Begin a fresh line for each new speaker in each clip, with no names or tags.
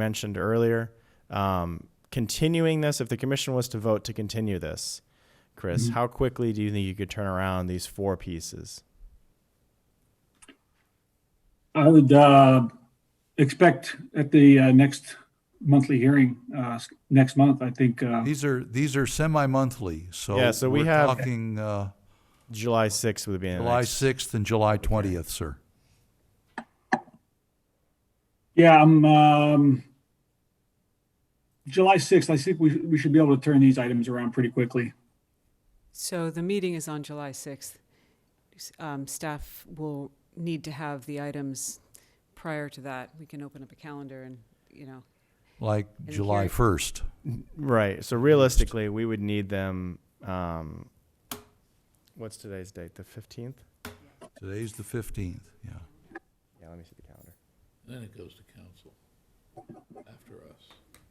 mentioned earlier. Um, continuing this, if the commission was to vote to continue this, Chris, how quickly do you think you could turn around these four pieces?
I would uh, expect at the uh, next monthly hearing, uh, s- next month, I think, uh,
These are, these are semi-monthly, so.
Yeah, so we
we're
have-
Talking, uh,
July 6th would be the
July
next.
sixth and July twentieth, sir.
yeah, I'm, um, July 6th, I think we, we should be able to turn these items around pretty quickly.
So the meeting is on July 6th. S- um, Staff will need to have the items prior to that. We can open up a calendar and, you know,
Like
And
July
here-
first.
Right. So realistically, we would need them. Um, what's today's date? The 15th?
Today's the fifteenth, yeah.
Yeah, let me see the calendar.
Then it goes to council after us.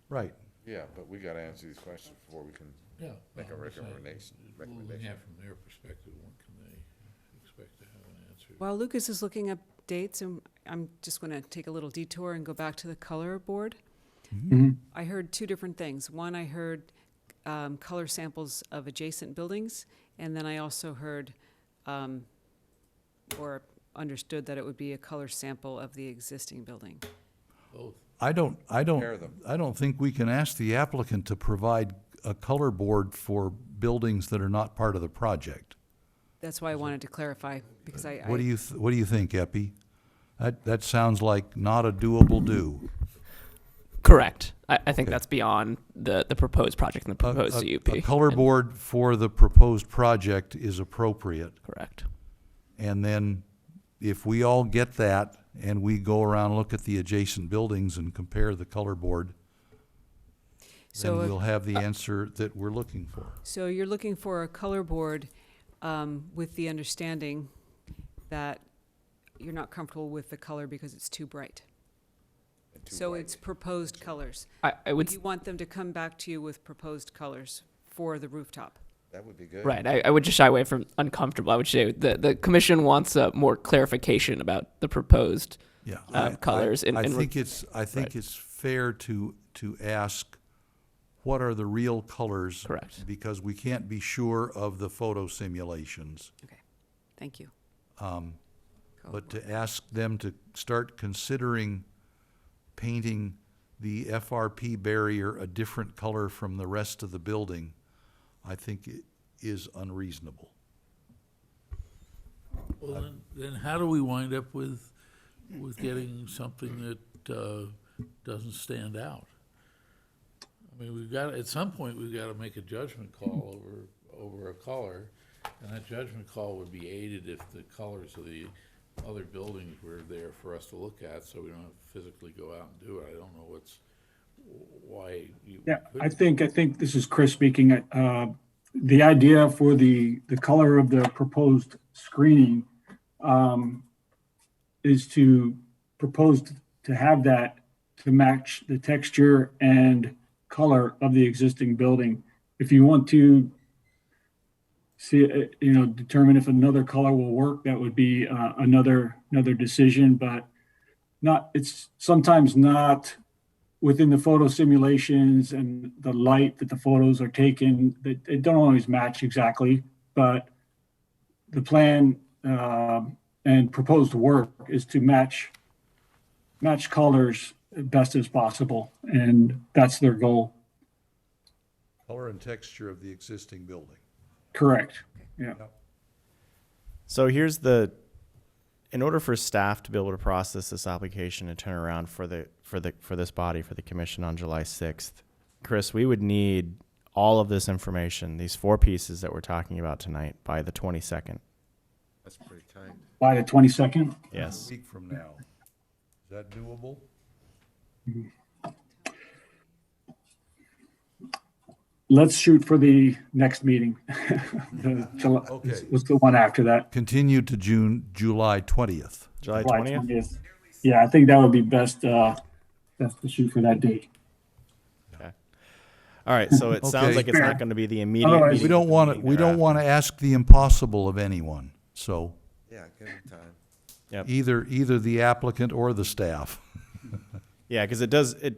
Right.
Yeah, but we gotta answer these questions before we can
Yeah.
make a
well, I'm saying,
recommendation,
Looking
recommendation.
at from their perspective, when can they expect to have an answer?
while Lucas is looking up dates, and I'm just going to take a little detour and go back to the color board. I heard two different things. One, I heard um, color samples of adjacent buildings, and then I also heard um, or understood that it would be a color sample of the existing building.
Both.
I don't, I
Compare
don't,
them.
I don't think we can ask the applicant to provide a color board for buildings that are not part of the project.
That's why I wanted to clarify, because I,
What do
I,
you, th- what do you think, Epi? That, that sounds like not a doable do.
Correct. I, I think
Okay.
that's beyond the, the proposed project and the
A-
proposed
a-
CUP.
A color
And-
board for the proposed project is appropriate.
Correct.
And then if we all get that and we go around, look at the adjacent buildings and compare the color board, then
so, if-
we'll have
uh,
the answer that we're looking for.
so you're looking for a color board, um, with the understanding that you're not comfortable with the color because it's too bright. So it's proposed colors.
I, I would,
You want them to come back to you with proposed colors for the rooftop.
That would be good.
right, I, I would just shy away from uncomfortable. I would say the, the commission wants uh, more clarification about the proposed.
Yeah.
uh,
I- I-
colors and-
I
and re-
think it's, I think it's fair to, to ask, what are the real colors?
Correct.
Because we can't be sure of the photo simulations. Um,
Okay, thank you.
But to ask them to start considering painting the FRP barrier a different color from the rest of the building, I think it is unreasonable.
Well, then, then how do we wind up with, with getting something that, uh, doesn't stand out? I mean, we've got, at some point, we've got to make a judgment call over, over a color. And that judgment call would be aided if the colors of the other buildings were there for us to look at, so we don't have to physically go out and do it. I don't know what's, why you.
Yeah, I
couldn't.
think, I think this is Chris speaking. Uh, The idea for the, the color of the proposed screening um, is to propose to have that to match the texture and color of the existing building. If you want to see, uh, you know, determine if another color will work, that would be uh, another, another decision, but not, it's sometimes not within the photo simulations and the light that the photos are taken, they, they don't always match exactly, but the plan um, and proposed work is to match match colors best as possible, and that's their goal.
Color and texture of the existing building.
Correct. Yeah.
So here's the in order for staff to be able to process this application and turn around for the for the for this body for the commission on July 6th, Chris, we would need all of this information, these four pieces that we're talking about tonight by the 22nd.
That's pretty tight.
By the twenty second.
Yes.
A week from now. Is that doable?
Let's shoot for the next meeting. the July,
Okay.
What's the one after that?
Continue to June, July twentieth.
July
July
20th.
20th. Yeah, I think that would be best. Uh, best to shoot for that date.
All right, so it sounds
Okay.
like it's not going to be the immediate
Otherwise-
meeting
We don't
with the
want to,
meeting
we don't
thereafter.
want to ask the impossible of anyone, so
Yeah, give them time.
Yep.
either, either the applicant or the staff.
Yeah, cuz it does it